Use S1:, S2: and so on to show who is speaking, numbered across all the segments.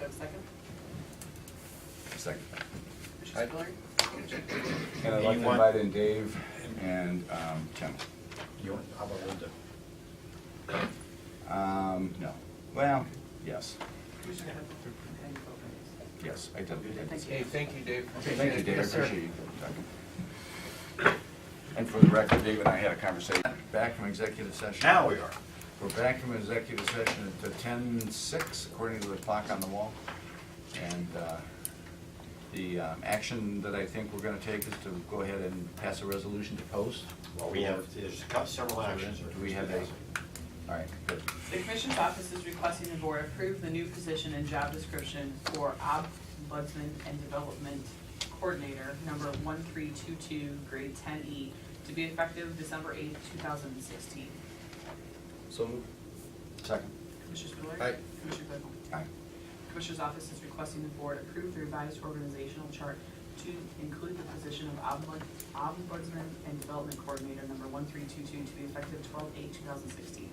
S1: have a second?
S2: Second.
S1: Commissioner Spillier?
S2: And I'd like
S3: You
S2: to
S3: want-
S2: invite in Dave and um, Tim.
S3: You want, how about Linda?
S2: Um, no, well, yes,
S1: Commissioner Hempel? And Coe.
S2: yes, I did. I did say
S4: Hey, thank you, Dave.
S2: that. Thank you, Dave, I appreciate you. talking. And for the record, Dave and I had a conversation back from executive session.
S3: Now we are.
S2: We're back from executive session at ten six, according to the clock on the wall. And uh, the um, action that I think we're gonna take is to go ahead and pass a resolution to post.
S3: Well, we have, there's a cou- several actions.
S2: Do we have that? All right, good.
S1: The Commission's office is requesting the board approve the new position and job description for Ombudsman and Development Coordinator, number one three two two, grade ten E, to be effective December eighth, two thousand and sixteen.
S4: So moved.
S2: Second.
S1: Commissioner Spillier?
S4: Aye.
S1: Commissioner Claypool?
S2: Aye.
S1: Commissioner's office is requesting the board approve the revised organizational chart to include the position of Ombud- Ombudsman and Development Coordinator, number one three two two, to be effective twelve eight, two thousand and sixteen,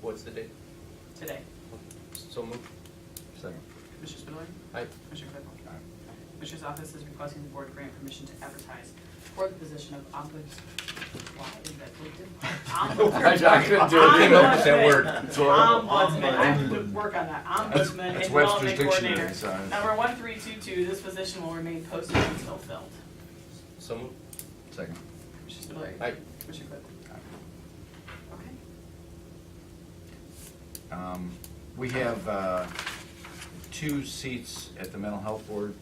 S4: What's the date?
S1: today.
S4: So moved.
S2: Second.
S1: Commissioner Spillier?
S4: Aye.
S1: Commissioner Claypool?
S2: All right.
S1: Commissioner's office is requesting the board grant permission to advertise for the position of ombuds. Why is that looked
S2: I couldn't do it, came up with that word.
S1: Ombudsman, I have to work on that, ombudsman and
S2: That's
S1: development
S2: Webster's
S1: coordinator.
S2: dictionary, so.
S1: Number one three two two, this position will remain posted until filled.
S4: So moved.
S2: Second.
S1: Commissioner Spudler.
S4: Aye.
S1: Commissioner Claypool. Okay.
S2: Um, We have uh, two seats at the mental health board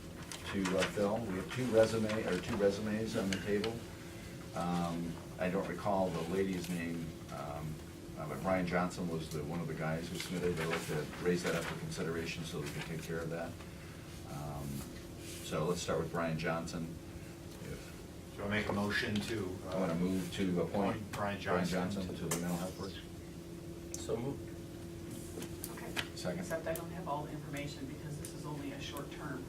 S2: to uh, fill. We have two resume, or two resumes on the table. Um, I don't recall the lady's name, um, uh, but Brian Johnson was the, one of the guys who submitted. I'd like to raise that up for consideration so we can take care of that. Um, So let's start with Brian Johnson. If
S3: So I make a motion to. uh,
S2: I want to move to appoint
S3: Appoint
S2: Brian
S3: Brian
S2: Johnson
S3: Johnson
S2: to the mental health board.
S4: So moved.
S1: Okay.
S2: Second.
S1: Except I don't have all the information because this is only a short term.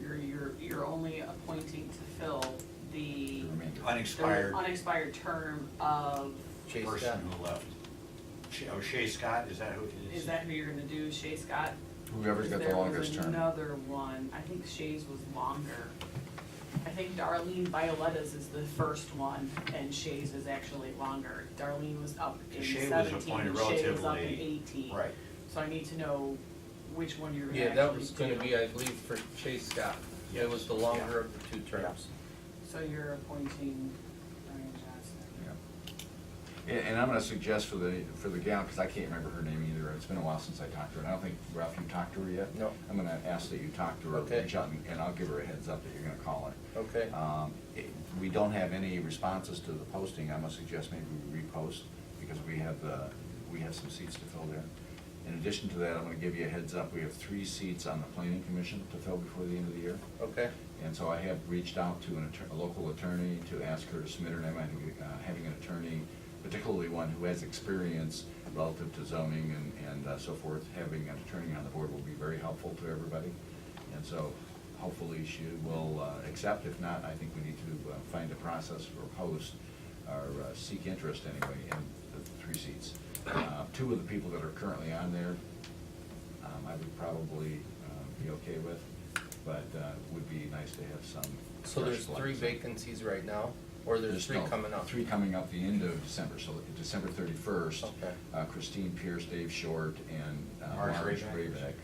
S1: You're, you're, you're only appointing to fill the.
S2: The remainder.
S1: their
S3: Unexpired
S1: unexpired term of,
S4: Chase Scott.
S3: person who left. Shea- Oh, Shea Scott, is that who it is?
S1: is that who you're gonna do, Shay Scott?
S2: Whoever's got the
S1: There was
S2: longest term.
S1: Another one, I think Shay's was longer. I think Darlene Violetta's is the first one, and Shay's is actually longer. Darlene was up in
S3: Shea
S1: seventeen,
S3: was
S1: Shay
S3: appointed
S1: was up in
S3: relatively-
S1: eighteen.
S3: Right.
S1: So I need to know which one you're gonna
S4: Yeah,
S1: actually
S4: that was gonna
S1: do.
S4: be, I believe, for Chase Scott. It
S3: Yes.
S4: was the longer of the two terms.
S1: So you're appointing Brian Johnson.
S2: Yeah. And, and I'm gonna suggest for the, for the gal, because I can't remember her name either, it's been a while since I talked to her, and I don't think, Ralph, you talked to her yet?
S4: No.
S2: I'm gonna ask that you talk to her,
S4: Okay.
S2: reach out, and- and I'll give her a heads up that you're gonna call her.
S4: Okay.
S2: Um, it- we don't have any responses to the posting, I'm gonna suggest maybe we repost, because we have, uh, we have some seats to fill there. In addition to that, I'm gonna give you a heads up, we have three seats on the planning commission to fill before the end of the year.
S4: Okay.
S2: And so I have reached out to an attorney, a local attorney to ask her to submit her name. I think uh, having an attorney, particularly one who has experience relative to zoning and, and uh, so forth, having an attorney on the board will be very helpful to everybody. And so hopefully she will uh, accept. If not, I think we need to uh, find a process or post or uh, seek interest anyway in the three seats. Uh, Two of the people that are currently on there um, I would probably um, be okay with, but uh, would be nice to have some.
S4: So
S2: fresh
S4: there's
S2: blood.
S4: three vacancies right now, or there's three
S2: no,
S4: coming up?
S2: Three coming up the end of December, so December thirty-first. uh,
S4: Okay.
S2: Christine Pierce, Dave Short, and uh,
S3: Marge
S2: Marge
S3: Rabeck.
S2: Rabeck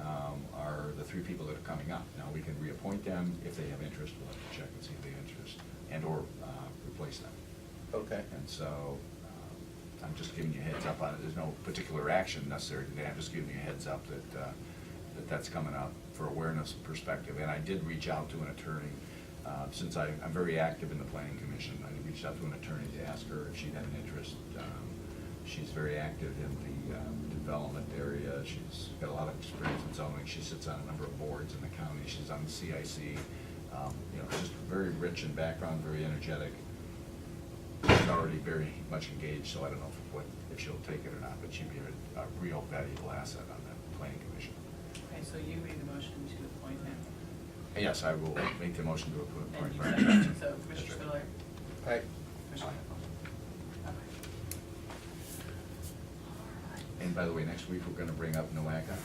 S2: um, are the three people that are coming up. Now, we can reappoint them if they have interest, we'll have to check and see if they have interest, and/or uh, replace them.
S4: Okay.
S2: And so, um, I'm just giving you a heads up on it, there's no particular action necessary today, I'm just giving you a heads up that, uh, that that's coming up for awareness perspective, and I did reach out to an attorney, uh, since I, I'm very active in the planning commission, I reached out to an attorney to ask her if she had an interest. Um, She's very active in the um, development area, she's got a lot of experience in zoning, she sits on a number of boards in the county, she's on the CIC, um, you know, just very rich in background, very energetic, She's already very much engaged, so I don't know if, what, if she'll take it or not, but she'd be a, a real valuable asset on the planning commission.
S1: Okay, so you made the motion to appoint him.
S2: And Yes, I will make the motion to appoint-
S1: And
S2: appoint
S1: you
S2: Brian
S1: seconded,
S2: Johnson.
S1: so Commissioner
S2: That's
S1: Spiller.
S4: Aye.
S1: Commissioner Claypool. Okay. All right.
S2: right. And by the way, next week, we're gonna bring up NOACA.